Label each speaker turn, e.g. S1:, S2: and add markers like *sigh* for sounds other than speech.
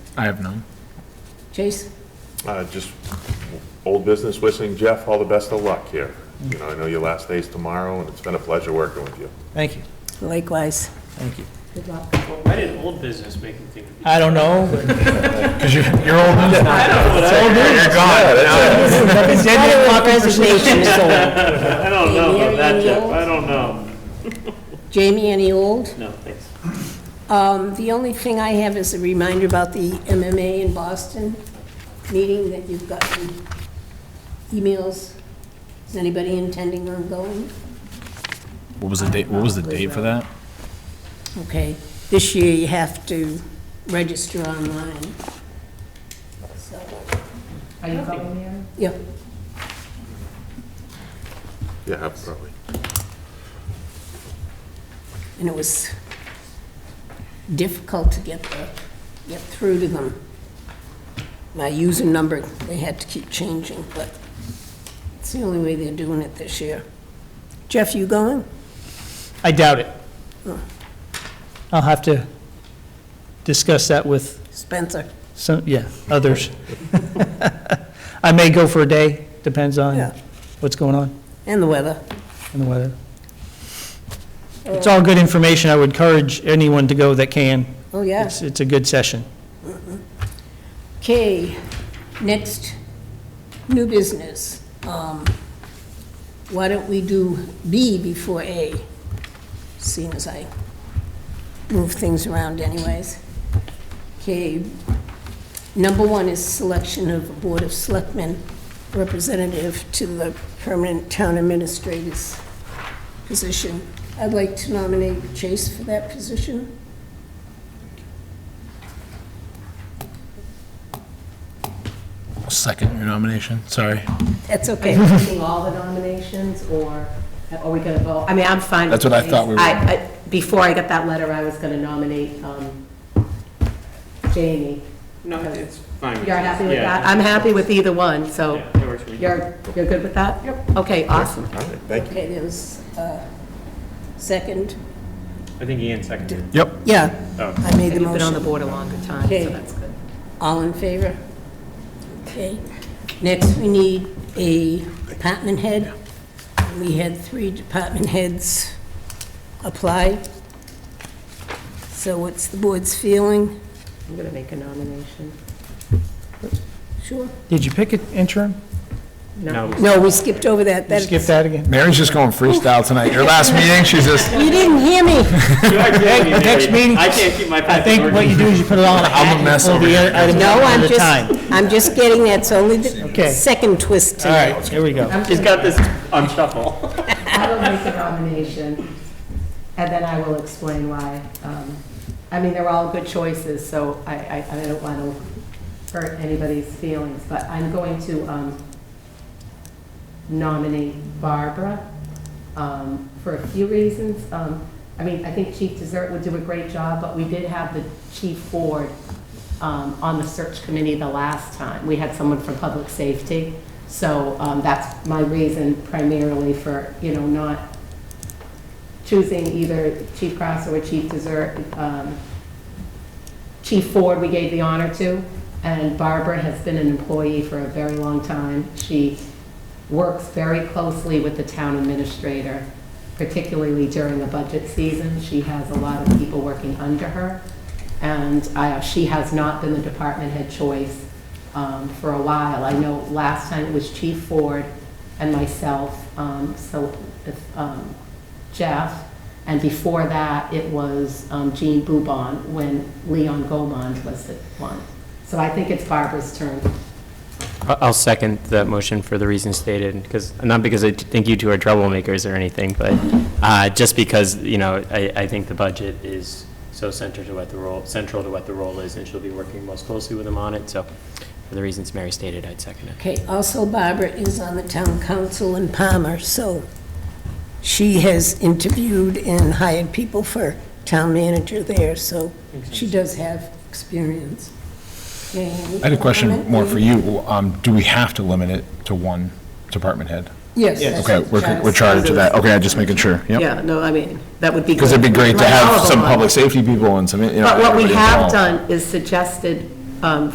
S1: I have none.
S2: Chase?
S3: Uh, Just old business, wishing Jeff all the best of luck here. You know, I know your last day's tomorrow, and it's been a pleasure working with you.
S4: Thank you,
S2: Likewise.
S4: thank you.
S2: Good luck.
S5: Well, why did old business make me think of
S4: I don't know.
S1: *laughs*
S4: but-
S1: Because you're, you're old news now.
S5: I don't know.
S1: It's old news. You're gone.
S4: It's dead yet popular for
S2: Resignation is over.
S5: I don't know about that, Jeff. I don't know.
S2: Jamie, any old?
S5: No, thanks.
S2: Um, The only thing I have is a reminder about the MMA in Boston meeting that you've gotten emails. Is anybody intending on going?
S1: What was the date, what was the date for that?
S2: Okay, this year you have to register online. So,
S6: Are you going there?
S2: yeah,
S3: Yeah, probably.
S2: and it was difficult to get the, get through to them. My user number, they had to keep changing, but it's the only way they're doing it this year. Jeff, you going?
S4: I doubt it. I'll have to discuss that with
S2: Spencer?
S4: some, yeah, others. *laughs* I may go for a day, depends on
S2: Yeah.
S4: what's going on
S2: And the weather.
S4: in the weather. It's all good information, I would encourage anyone to go that can.
S2: Oh, yeah.
S4: It's, it's a good session.
S2: Okay, next, new business. Um, Why don't we do B before A, seeing as I move things around anyways? Okay, number one is selection of a Board of Selectmen representative to the permanent town administrator's position. I'd like to nominate Chase for that position.
S1: Second your nomination, sorry.
S2: That's
S6: Are *laughs*
S2: okay.
S6: you taking all the nominations, or are we going to vote? I mean, I'm fine. with
S1: That's what I
S6: these.
S1: thought we were-
S6: I- I- Before I got that letter, I was going to nominate um, Jamie.
S5: No, it's fine.
S6: You're happy with
S5: Yeah.
S6: that? I'm happy with either one, so
S5: Yeah, that works for me.
S6: you're, you're good with that? Yep. Okay, awesome.
S3: All right, thank you.
S2: Okay, there was a second.
S5: I think Ian seconded. *laughs* it.
S1: Yep.
S2: Yeah,
S5: Oh.
S2: I made the
S6: You've been on the
S2: motion.
S6: board a longer time,
S2: Okay.
S6: so that's good.
S2: All in favor? Okay. Next, we need a department head. We had three department heads apply. So what's the board's feeling?
S6: I'm going to make a nomination.
S2: Sure.
S4: Did you pick an interim?
S5: No.
S2: No, we skipped over that.
S4: You
S2: That-
S4: skip that again?
S1: Mary's just going freestyle tonight. Your last meeting, she's just,
S2: You didn't hear me.
S4: *laughs*
S5: You are kidding me,
S4: Next
S5: Mary.
S4: meeting-
S5: I can't keep my.
S4: I think what you do is you put it all in a
S1: I'm a
S4: hat and
S1: mess
S4: pull
S1: over
S4: the
S1: here.
S4: item
S2: No,
S4: one
S2: I'm
S4: at a time.
S2: just, I'm just getting that's only the
S4: Okay.
S2: second twist
S4: All
S2: tonight.
S4: right, here we go.
S6: I'm
S5: She's
S6: just-
S5: got this on shuffle.
S6: I will make a nomination, and then I will explain why. Um, I mean, they're all good choices, so I, I, I don't want to hurt anybody's feelings, but I'm going to um, nominate Barbara um, for a few reasons. Um, I mean, I think Chief Dessert would do a great job, but we did have the Chief Ford um, on the search committee the last time. We had someone from Public Safety. So um, that's my reason primarily for, you know, not choosing either Chief Cross or Chief Dessert. Um, Chief Ford, we gave the honor to, and Barbara has been an employee for a very long time. She works very closely with the town administrator, particularly during the budget season. She has a lot of people working under her, and uh, she has not been the department head choice um, for a while. I know last time it was Chief Ford and myself, um, so if, um, Jeff, and before that, it was um, Jean Boubon when Leon Gomond was the one. So I think it's Barbara's turn.
S7: I- I'll second that motion for the reasons stated, because, not because I t- think you two are troublemakers or anything, but uh, just because, you know, I, I think the budget is so centered to what the role, central to what the role is, and she'll be working most closely with them on it, so for the reasons Mary stated, I'd second it.
S2: Okay, also Barbara is on the town council in Palmer, so she has interviewed and hired people for town manager there, so she does have experience. I
S1: I had a question more for you. Um, do we have to limit it to one department head?
S2: Yes. that's
S1: Okay,
S2: what
S1: we're,
S2: Giles
S1: we're charged to
S2: says.
S1: that. Okay, I'm just making sure. Yep.
S6: Yeah, no, I mean, that would be.
S1: Because it'd be great to
S6: Like all of
S1: have
S6: them
S1: some
S6: on.
S1: public safety people and some, you know.
S6: But what we
S1: everybody
S6: have
S1: involved.
S6: done is suggested um,